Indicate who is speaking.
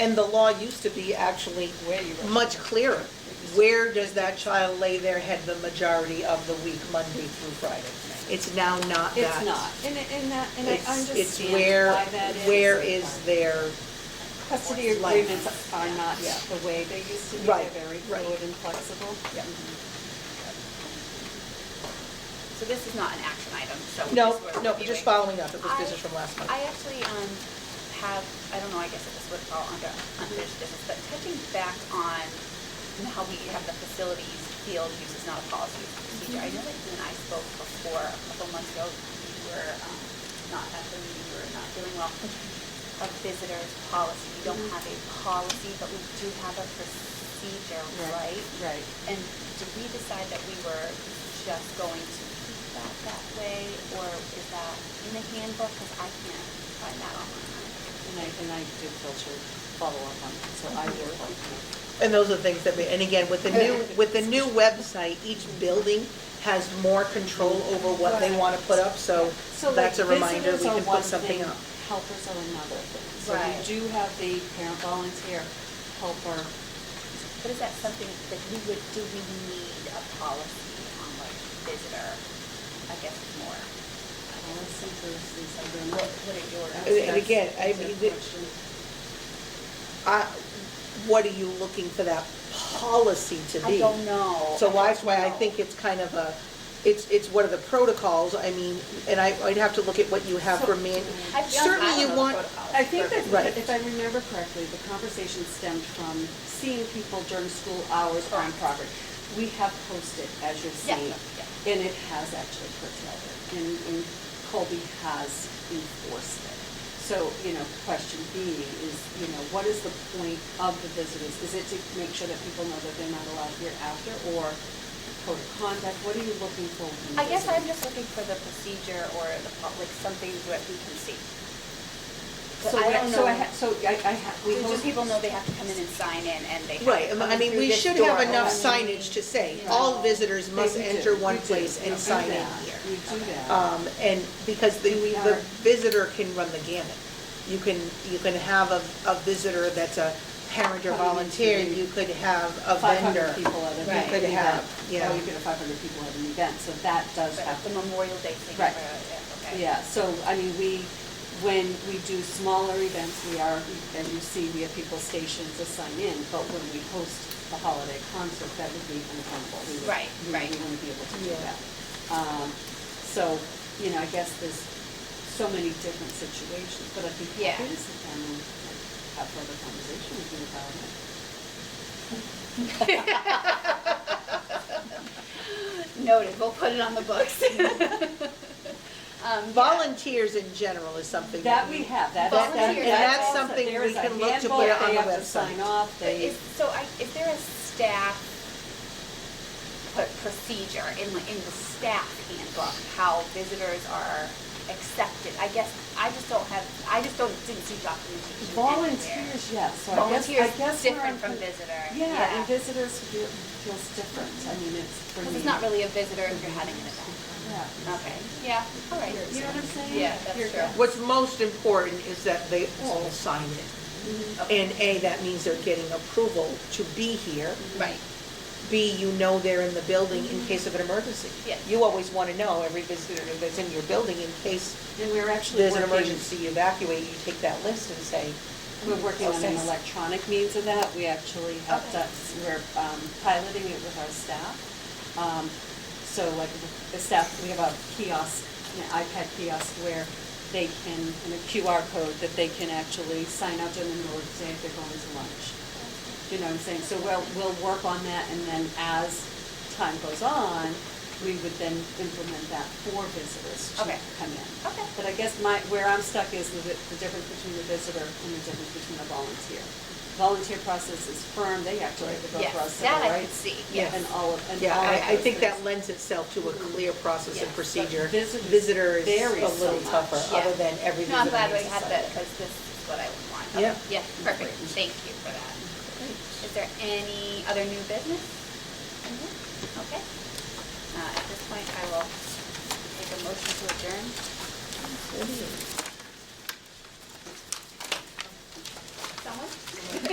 Speaker 1: And the law used to be actually
Speaker 2: Where you were.
Speaker 1: much clearer. Where does that child lay their head the majority of the week, Monday through Friday? It's now not that.
Speaker 3: It's not, and, it- and that, and I
Speaker 1: It's- It's
Speaker 3: understand
Speaker 1: where,
Speaker 3: why that is.
Speaker 1: where is their,
Speaker 3: Custody
Speaker 1: life.
Speaker 3: agreements are not
Speaker 1: Yeah.
Speaker 3: the way they used to be,
Speaker 1: Right,
Speaker 3: they're very
Speaker 1: right.
Speaker 3: fluid and flexible.
Speaker 1: Yeah.
Speaker 4: So this is not an action item, so. we
Speaker 1: no,
Speaker 4: just were
Speaker 1: no,
Speaker 4: reviewing.
Speaker 1: just following up, it was
Speaker 4: I-
Speaker 1: business from last month.
Speaker 4: I actually um, have, I don't know, I guess if this would fall under unfinished business, but touching back on how we have the facilities field use is not a policy it's a procedure. I know that you and I spoke before, a couple months ago, you were um, not at the meeting, you were not doing well. A visitor's policy, we don't
Speaker 1: Mm-hmm.
Speaker 4: have a policy, but we do have a procedure, right?
Speaker 3: Right.
Speaker 4: And did we decide that we were just going to keep that that way, or is that in the handbook? Because I can't find that online.
Speaker 3: And I, and I did filter, follow up on that, so I will.
Speaker 1: And those are things that, we and again, with the new, with the new website, each building has more control over what they want to put up, so
Speaker 3: So like
Speaker 1: that's a reminder, we
Speaker 3: visitors are
Speaker 1: can
Speaker 3: one
Speaker 1: put something
Speaker 3: thing,
Speaker 1: up.
Speaker 3: helpers are another thing. So
Speaker 4: Right.
Speaker 3: we do have the parent volunteer helper.
Speaker 4: But is that something that we would, do we need a policy on like visitor, I guess, more?
Speaker 3: Policy versus
Speaker 4: What,
Speaker 3: agreement.
Speaker 4: what are your?
Speaker 1: And- and again, I
Speaker 3: That's a
Speaker 1: mean, the-
Speaker 3: good question.
Speaker 1: I- What are you looking for that policy to be?
Speaker 4: I don't know.
Speaker 1: So
Speaker 4: I
Speaker 1: that's
Speaker 4: don't
Speaker 1: why I
Speaker 4: know.
Speaker 1: think it's kind of a, it's, it's what are the protocols, I mean, and I, I'd have to look at what you have for man.
Speaker 4: I feel I
Speaker 1: Certainly
Speaker 4: don't
Speaker 1: you
Speaker 4: know
Speaker 1: want,
Speaker 4: the protocols.
Speaker 3: I think that,
Speaker 1: Right.
Speaker 3: if I remember correctly, the conversation stemmed from seeing people during school hours on
Speaker 4: Correct.
Speaker 3: property. We have posted, as you're
Speaker 4: Yeah,
Speaker 3: seeing,
Speaker 4: yeah.
Speaker 3: and it has actually curtailed it, and, and Colby has enforced it. So, you know, question being is, you know, what is the point of the visitors? Is it to make sure that people know that they're not allowed here after, or code of conduct? What are you looking for from the
Speaker 4: I guess
Speaker 3: visitors?
Speaker 4: I'm just looking for the procedure or the, po- like something that we can see. But
Speaker 3: So
Speaker 4: I
Speaker 3: what-
Speaker 4: don't
Speaker 3: So I,
Speaker 4: know.
Speaker 3: ha- so I, I have, we
Speaker 4: We
Speaker 3: hope-
Speaker 4: just people know they have to come in and sign in and they have
Speaker 1: right,
Speaker 4: to come
Speaker 1: I mean,
Speaker 4: through
Speaker 1: we
Speaker 4: this
Speaker 1: should have
Speaker 4: door
Speaker 1: enough
Speaker 4: only.
Speaker 1: signage to say, all visitors must
Speaker 3: They do,
Speaker 1: enter one
Speaker 3: you do,
Speaker 1: place
Speaker 3: you
Speaker 1: and
Speaker 3: do
Speaker 1: sign in
Speaker 3: that,
Speaker 1: here.
Speaker 3: You do that.
Speaker 1: Um, and because the,
Speaker 3: We
Speaker 1: the
Speaker 3: are-
Speaker 1: visitor can run the gamut. You can, you can have a, a visitor that's a parent or volunteer, you could have a vendor.
Speaker 3: 500 people at an
Speaker 4: Right.
Speaker 3: event.
Speaker 1: You could have, yeah.
Speaker 3: Or you could have 500 people at an event, so that does
Speaker 4: But at the
Speaker 3: happen.
Speaker 4: Memorial Day thing.
Speaker 3: Right.
Speaker 4: uh, yeah, okay.
Speaker 3: Yeah, so, I mean, we, when we do smaller events, we are, as you see, we have people stationed to sign in, but when we host a holiday concert, that would be unaccountable. We would-
Speaker 4: Right,
Speaker 3: we-
Speaker 4: right.
Speaker 3: We wouldn't be able to do
Speaker 1: Yeah.
Speaker 3: that. Um, So, you know, I guess there's so many different situations, but I'd be
Speaker 4: Yeah.
Speaker 3: happy to sit down and like, have further conversation with you about it.
Speaker 4: Noted, we'll put it on the books. Um, yeah.
Speaker 1: Volunteers in general is something that
Speaker 3: That
Speaker 1: we.
Speaker 3: we have, that.
Speaker 4: Volunteer,
Speaker 3: that- that-
Speaker 4: and that's
Speaker 3: also-
Speaker 1: something
Speaker 3: there
Speaker 1: we
Speaker 3: is a
Speaker 1: can look to put
Speaker 3: handbook,
Speaker 1: it on
Speaker 3: they
Speaker 1: the
Speaker 3: have to
Speaker 1: website.
Speaker 3: sign off,
Speaker 4: So
Speaker 3: they,
Speaker 4: is- So I, is there a staff put procedure in, the- in the staff handbook, how visitors are accepted? I guess, I just don't have, I just don't, didn't see documentation anywhere.
Speaker 3: volunteers, yes, so I guess, I guess.
Speaker 4: Volunteers,
Speaker 3: we're
Speaker 4: different from
Speaker 3: inclu-
Speaker 4: visitor.
Speaker 3: Yeah, and visitors feel- feels different, I mean, it's for me.
Speaker 4: Because it's not really a visitor if you're having an event.
Speaker 3: Yeah.
Speaker 4: Okay, yeah, all right.
Speaker 3: You know what I'm saying?
Speaker 4: Yeah, that's
Speaker 3: Here-
Speaker 4: true.
Speaker 1: What's most important is that they all sign in.
Speaker 3: Mm-hmm.
Speaker 4: Okay.
Speaker 1: And A, that means they're getting approval to be here.
Speaker 4: Right,
Speaker 1: B, you know they're in the building
Speaker 3: Mm-hmm.
Speaker 1: in case of an emergency.
Speaker 4: Yeah.
Speaker 1: You always want to know every visitor that's in your building in case
Speaker 3: And we're actually
Speaker 1: there's an
Speaker 3: working,
Speaker 1: emergency, you evacuate, you take that list and say,
Speaker 3: we're working on an
Speaker 1: Okay.
Speaker 3: electronic means of that, we actually have
Speaker 4: Okay.
Speaker 3: that, we're um, piloting it with our staff. Um, So like the staff, we have a kiosk, an iPad kiosk where they can, and a QR code that they can actually sign up to in the middle of the day if they're going to lunch. You know what I'm saying? So we'll, we'll work on that and then as time goes on, we would then implement that for visitors to
Speaker 4: Okay.
Speaker 3: come in.
Speaker 4: Okay.
Speaker 3: But I guess my, where I'm stuck is the, the difference between the visitor and the difference between the volunteer. Volunteer process is firm, they actually have to go
Speaker 4: Yes,
Speaker 3: through us,
Speaker 4: that
Speaker 3: right?
Speaker 4: I could see,
Speaker 3: Yeah,
Speaker 4: yes.
Speaker 3: And all of, and
Speaker 1: Yeah,
Speaker 3: all of
Speaker 1: I, I
Speaker 3: those
Speaker 1: think that
Speaker 3: things.
Speaker 1: lends itself to a clear process
Speaker 4: Yes,
Speaker 1: and
Speaker 4: but
Speaker 1: procedure.
Speaker 3: visitors
Speaker 1: Visitor is a
Speaker 3: varies so
Speaker 1: little
Speaker 3: much.
Speaker 1: tougher, other
Speaker 4: Yeah.
Speaker 1: than everything.
Speaker 4: No, I'm glad
Speaker 1: that
Speaker 4: we
Speaker 1: needs
Speaker 4: had
Speaker 1: to
Speaker 4: that,
Speaker 1: sign.
Speaker 4: because this is what I would want.
Speaker 1: Yeah.
Speaker 4: Yeah, perfect, thank you for that. Is there any other new business? Mm-hmm. Okay. Uh, At this point, I will take a motion to adjourn.